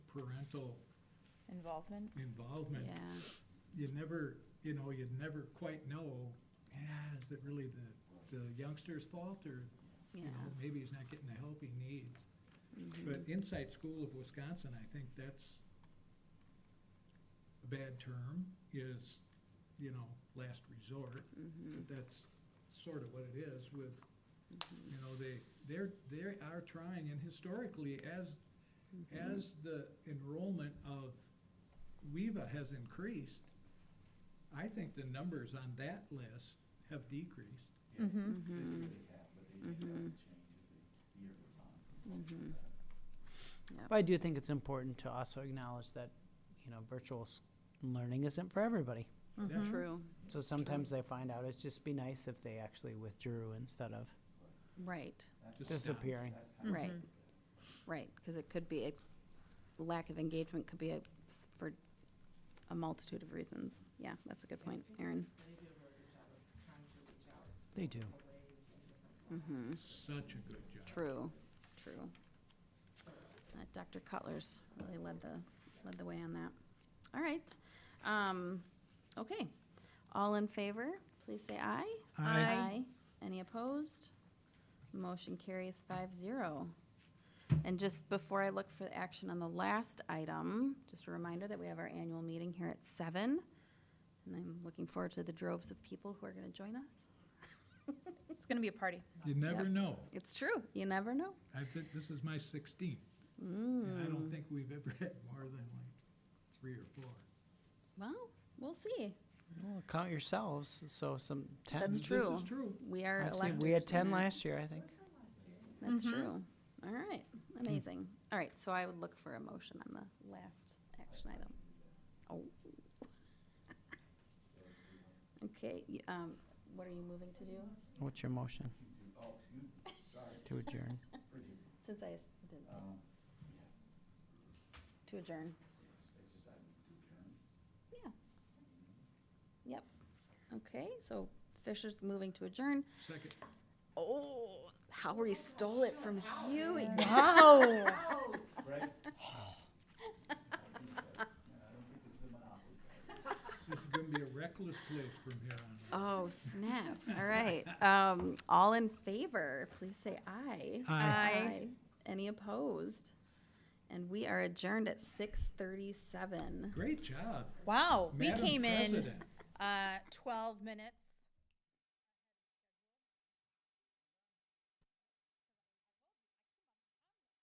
parental involvement. involvement, Yeah, you never, you know, you'd never quite know, ah, is it really the, the youngster's fault or, you yeah. know, maybe he's not getting the help he needs. mhm. But Inside School of Wisconsin, I think that's a bad term, is, you know, last resort. Mhm, But that's sort of what it is with, mm-hmm, you know, they, they're, they are trying, and historically, as, mhm. as the enrollment of WEVA has increased, I think the numbers on that list have decreased. Mm-hmm. Mhm, Mhm. mhm. But I do think it's important to also acknowledge that, you know, virtual s- learning isn't for everybody. Mm-hmm. True, So sometimes they find out it's just be nice if they actually withdrew instead of right, Just stops. disappearing. Mm-hmm. right, right, because it could be, a lack of engagement could be a, s- for a multitude of reasons. Yeah, that's a good point, Erin. They do. Mhm. Such a good job. True, true. Uh, Dr. Cutler's really led the, led the way on that. All right. Um, okay. All in favor, please say aye. Any opposed? Motion carries five zero. And just before I look for action on the last item, just a reminder that we have our annual meeting here at seven. And I'm looking forward to the droves of people who are gonna join us. It's going to be a party. You never Yep. know. It's true, you never know. I've been, this is my sixteenth, and I don't Mm, think we've ever had more than like three or four. well, we'll see. Well, count yourselves, so some ten. That's true. This is true. We are I've electors. Mm-hmm. seen, we had ten and that- last year, I think. That's Mhm. true. All right, amazing. All right, so I would look for a motion on the last action item. Oh. Okay, y- um, what are you moving to do? What's your motion? To adjourn. Since I s- didn't. say. To adjourn. Yeah. Yep. Okay, so Fisher's moving to adjourn. Second, Oh, Howie stole it from Huey. Wow. this is gonna be a reckless place from here on out. Oh, snap. All right. Um, all in favor, please say aye. Aye. Any opposed? And we are adjourned at six thirty-seven. Great job. Wow. We Madam came in President. uh, 12 minutes.